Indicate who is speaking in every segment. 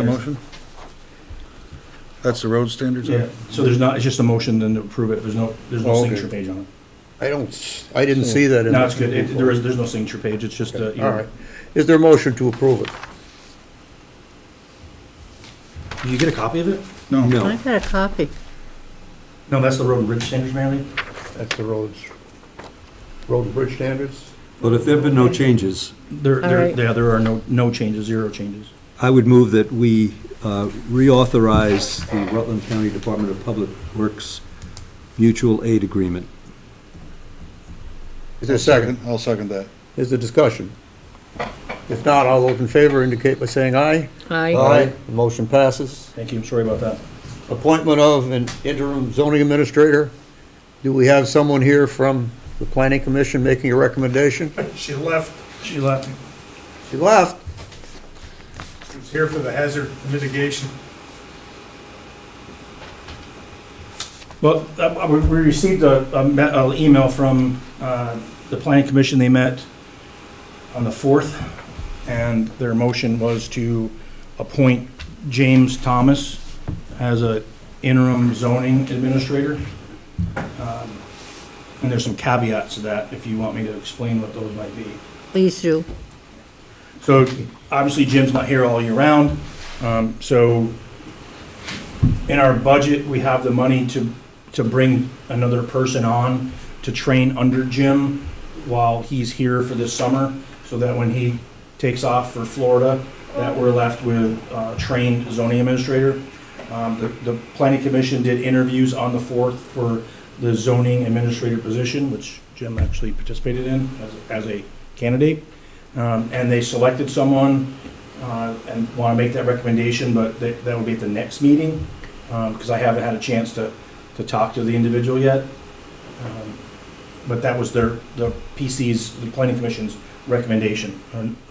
Speaker 1: A motion? That's the road standards? huh?
Speaker 2: Yeah, so there's not, it's just a motion then to approve it, there's no, there's no
Speaker 1: Oh, okay.
Speaker 2: signature page on it.
Speaker 3: I don't, s- I didn't see that in.
Speaker 2: No, it's good, it, there is, there's no signature page, it's just uh, a,
Speaker 3: All right. Is there a motion to approve it?
Speaker 2: Did you get a copy of it?
Speaker 1: No,
Speaker 4: I got a copy.
Speaker 2: No, that's the road and bridge standards, Mary Lee.
Speaker 3: That's the roads, road and bridge standards?
Speaker 5: But if there've been no changes,
Speaker 2: There,
Speaker 4: All
Speaker 2: there,
Speaker 4: right.
Speaker 2: yeah, there are no, no changes, zero changes.
Speaker 5: I would move that we uh, reauthorize the Rutland County Department of Public Works mutual aid agreement.
Speaker 3: Is there a second?
Speaker 1: I'll second that.
Speaker 3: Is there discussion? If not, all those in favor indicate by saying aye.
Speaker 4: I,
Speaker 3: The Motion passes.
Speaker 2: Thank you, I'm sorry about that.
Speaker 3: Appointment of an interim zoning administrator. Do we have someone here from the planning commission making a recommendation?
Speaker 6: She left,
Speaker 2: She left.
Speaker 3: She left.
Speaker 6: she was here for the hazard mitigation.
Speaker 2: Well, uh, uh, we we received a, an email from uh, the planning commission. They met on the 4th, and their motion was to appoint James Thomas as a interim zoning administrator. Um, And there's some caveats to that, if you want me to explain what those might be.
Speaker 4: please do.
Speaker 2: So obviously Jim's not here all year round. Um, So in our budget, we have the money to, to bring another person on to train under Jim while he's here for this summer, so that when he takes off for Florida, that we're left with a trained zoning administrator. Um, The, the planning commission did interviews on the 4th for the zoning administrator position, which Jim actually participated in as, as a candidate. Um, and they selected someone, uh, and want to make that recommendation, but that, that would be at the next meeting, um, because I haven't had a chance to, to talk to the individual yet. Um, But that was their, the PC's, the planning commission's recommendation,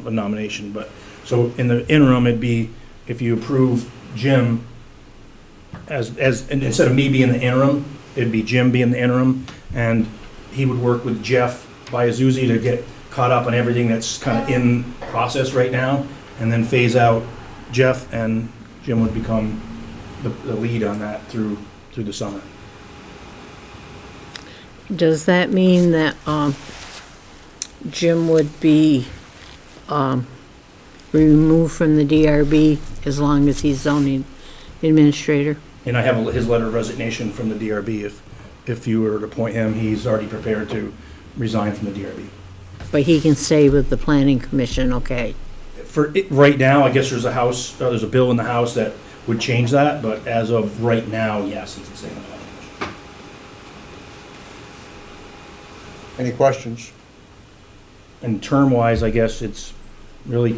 Speaker 2: or nomination, but, so in the interim, it'd be, if you approve Jim as, as, and instead of me being the interim, it'd be Jim being the interim, and he would work with Jeff Biazzuzzi to get caught up on everything that's kind of in process right now, and then phase out Jeff, and Jim would become the, the lead on that through, through the summer.
Speaker 4: Does that mean that um, Jim would be um, removed from the DRB as long as he's zoning administrator?
Speaker 2: And I have his letter of resignation from the DRB. If, if you were to appoint him, he's already prepared to resign from the DRB.
Speaker 4: But he can stay with the planning commission, okay?
Speaker 2: For, it- right now, I guess there's a house, uh, there's a bill in the House that would change that, but as of right now, yes, he can stay on the planning commission.
Speaker 3: Any questions?
Speaker 2: And term-wise, I guess it's really.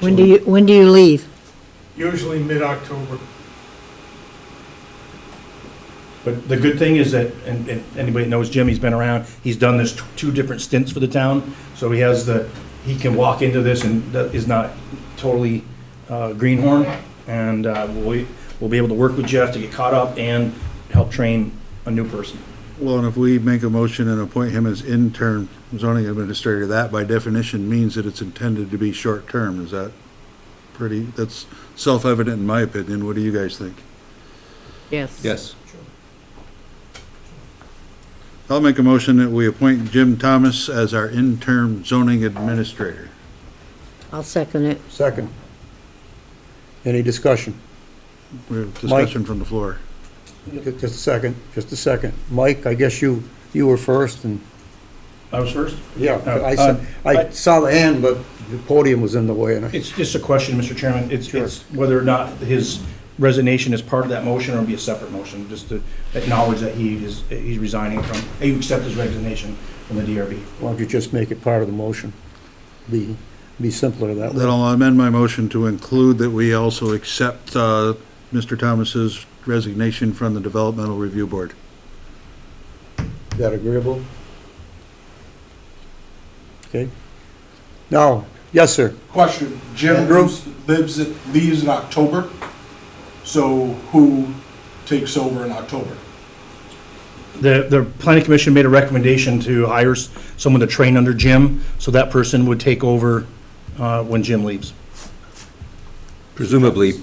Speaker 4: When do you, when do you leave?
Speaker 6: Usually mid-October,
Speaker 2: But the good thing is that, and if anybody knows Jim, he's been around, he's done this t- two different stints for the town, so he has the, he can walk into this and that is not totally uh, greenhorn, and uh, we'll, we'll be able to work with Jeff to get caught up and help train a new person.
Speaker 1: Well, and if we make a motion and appoint him as interim zoning administrator, that by definition means that it's intended to be short-term. Is that pretty, that's self-evident in my opinion. What do you guys think?
Speaker 4: Yes.
Speaker 5: Yes.
Speaker 1: I'll make a motion that we appoint Jim Thomas as our interim zoning administrator.
Speaker 4: I'll second it.
Speaker 3: Second. Any discussion?
Speaker 1: We have discussion from the floor.
Speaker 3: Ju- Just a second, just a second. Mike, I guess you, you were first and,
Speaker 2: I was first?
Speaker 3: yeah,
Speaker 2: Oh,
Speaker 3: I saw,
Speaker 2: uh,
Speaker 3: I
Speaker 2: I-
Speaker 3: saw the hand, but the podium was in the way and I,
Speaker 2: It's just a question, Mr. Chairman. It's, it's whether or not his resignation is part of that motion or it'll be a separate motion, just to acknowledge that he is, he's resigning from, that you accept his resignation from the DRB.
Speaker 3: why don't you just make it part of the motion? Be, be simpler that
Speaker 1: Then
Speaker 3: way.
Speaker 1: I'll amend my motion to include that we also accept uh, Mr. Thomas's resignation from the Developmental Review Board.
Speaker 3: Is that agreeable? Okay. Now, yes, sir.
Speaker 7: Question, Jim
Speaker 3: Andrew?
Speaker 7: lives, lives in- leaves in October, so who takes over in October?
Speaker 2: The, the planning commission made a recommendation to hire s- someone to train under Jim, so that person would take over uh, when Jim leaves.
Speaker 5: Presumably